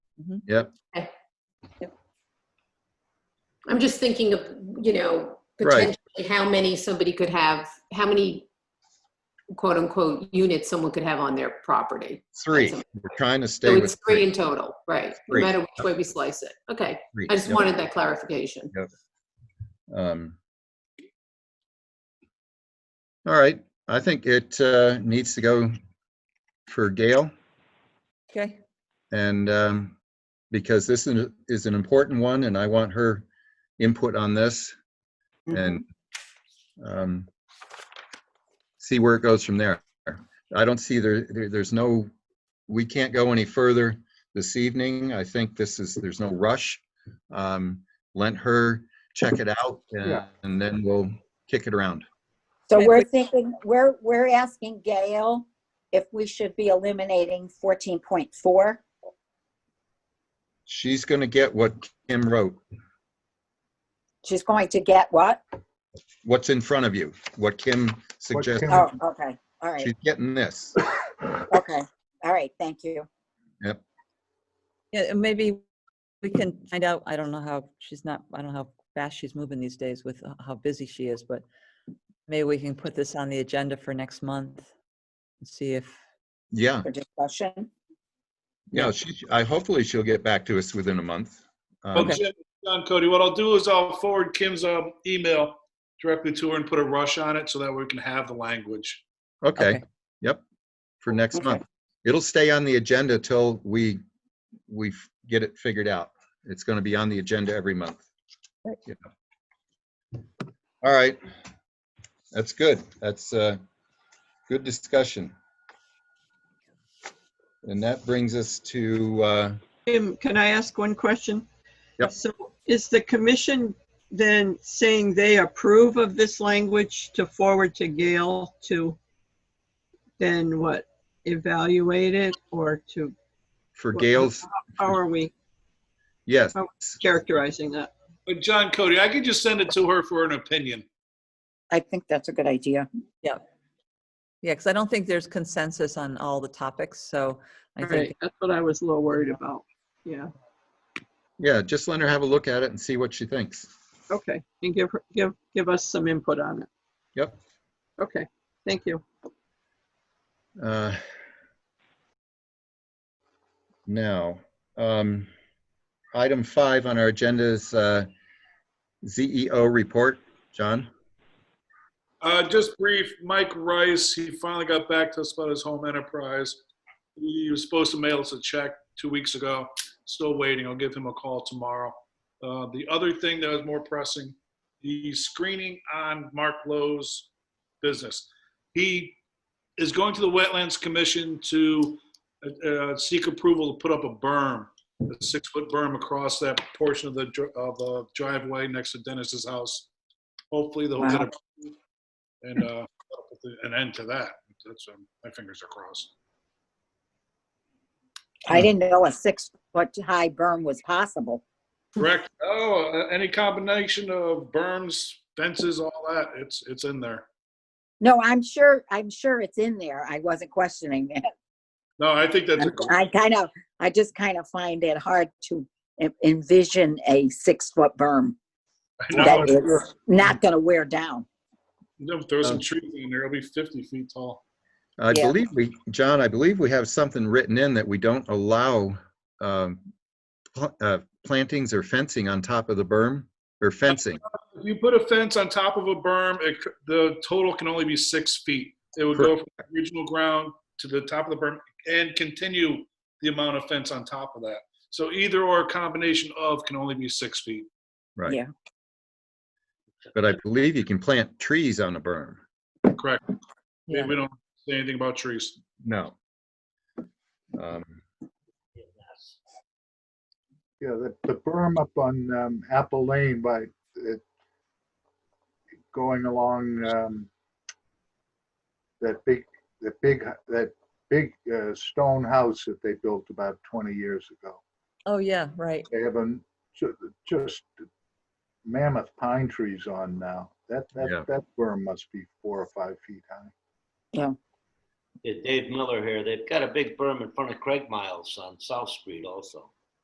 Mm-hmm. Mhm. Yep. Okay. Yep. I'm just thinking of, you know, Right. potentially how many somebody could have, how many quote unquote units someone could have on their property. Three, we're trying to So stay it's with three in total, right? No Three. matter which way we slice it. Okay, three. I just Yep. wanted that clarification. Um, All right, I think it uh, needs to go for Gail. Okay, And um, because this is, is an important one and I want her input on this and um, see where it goes from there. I don't see there, there- there's no, we can't go any further this evening. I think this is, there's no rush. Um, Let her check it out and Yeah. and then we'll kick it around. So Okay, we're but- thinking, we're, we're asking Gail if we should be eliminating fourteen point four. She's going to get what Kim wrote, She's going to get what? what's in front of you, what Kim suggested. Kim- Oh, okay, all right, She's getting this. okay, all right, thank you. yeah, and maybe we can find out, I don't know how, she's not, I don't know how fast she's moving these days with h- how busy she is, but maybe we can put this on the agenda for next month and see if, Yeah. For discussion, Yeah, she, I, hopefully she'll get back to us within a month. Um, Well, Jim, John Cody, what I'll do is I'll forward Kim's um, email directly to her and put a rush on it so that we can have the language. Okay, Okay. yep, for next Okay. month. It'll stay on the agenda till we, we f- get it figured out. It's gonna be on the agenda every month. Right. Yeah. All right, that's good. That's uh good discussion. And that brings us to, uh, Jim, can I ask one question? Yep. So is the commission then saying they approve of this language to forward to Gail to then what, evaluate it or to, for Well, Gail's, how are we yes, Oh. characterizing that? But John Cody, I could just send it to her for an opinion. I think that's a good idea. yeah, because I don't think there's consensus on all the topics, so I think, Right, that's what I was a little worried about. Yeah, yeah, just let her have a look at it and see what she thinks. okay, and give, her give, give us some input on it. Yep. Okay, thank you. Uh Now, um item five on our agenda is uh ZEO report. John? Uh, just brief, Mike Rice, he finally got back to us about his home enterprise. He was supposed to mail us a check two weeks ago. Still waiting. I'll give him a call tomorrow. Uh, the other thing that was more pressing, the screening on Mark Lowe's business. He is going to the Wetlands Commission to uh, uh, seek approval to put up a berm, a six-foot berm across that portion of the dr- of the driveway next to Dennis's house. Hopefully, they'll get Wow. a and uh, put an end to that. That's um, my fingers are crossed. Hmm. I didn't know a six-foot-high berm was possible. Correct. Oh, uh, any combination of berms, fences, all that. It's it's in there. No, I'm sure, I'm sure it's in there, I wasn't questioning it. No, I think that's. a- I kind of, I just kind of find it hard to en- envision a six-foot berm No, that is not gonna wear down. no, throw some trees in there. It'll be 50 feet tall. I Yeah. believe we, John, I believe we have something written in that we don't allow um pl- uh plantings or fencing on top of the berm or fencing. If you put a fence on top of a berm, it, c- the total can only be six feet. It would go from the original ground to the top of the berm and continue the amount of fence on top of that. So either or a combination of can only be six feet. Right. Yeah. But I believe you can plant trees on a berm. Correct. yeah. We don't say anything about trees. No. Um, Yeah, the, the berm up on um, Apple Lane by, it- going along um, that big, that big, that big uh, stone house that they built about 20 years ago. oh, yeah, right. They have a, ju- just mammoth pine trees on now. That, Yeah. that, that berm must be four or five feet high. Yeah, Dave Miller here. They've got a big berm in front of Craig Miles on South Street also.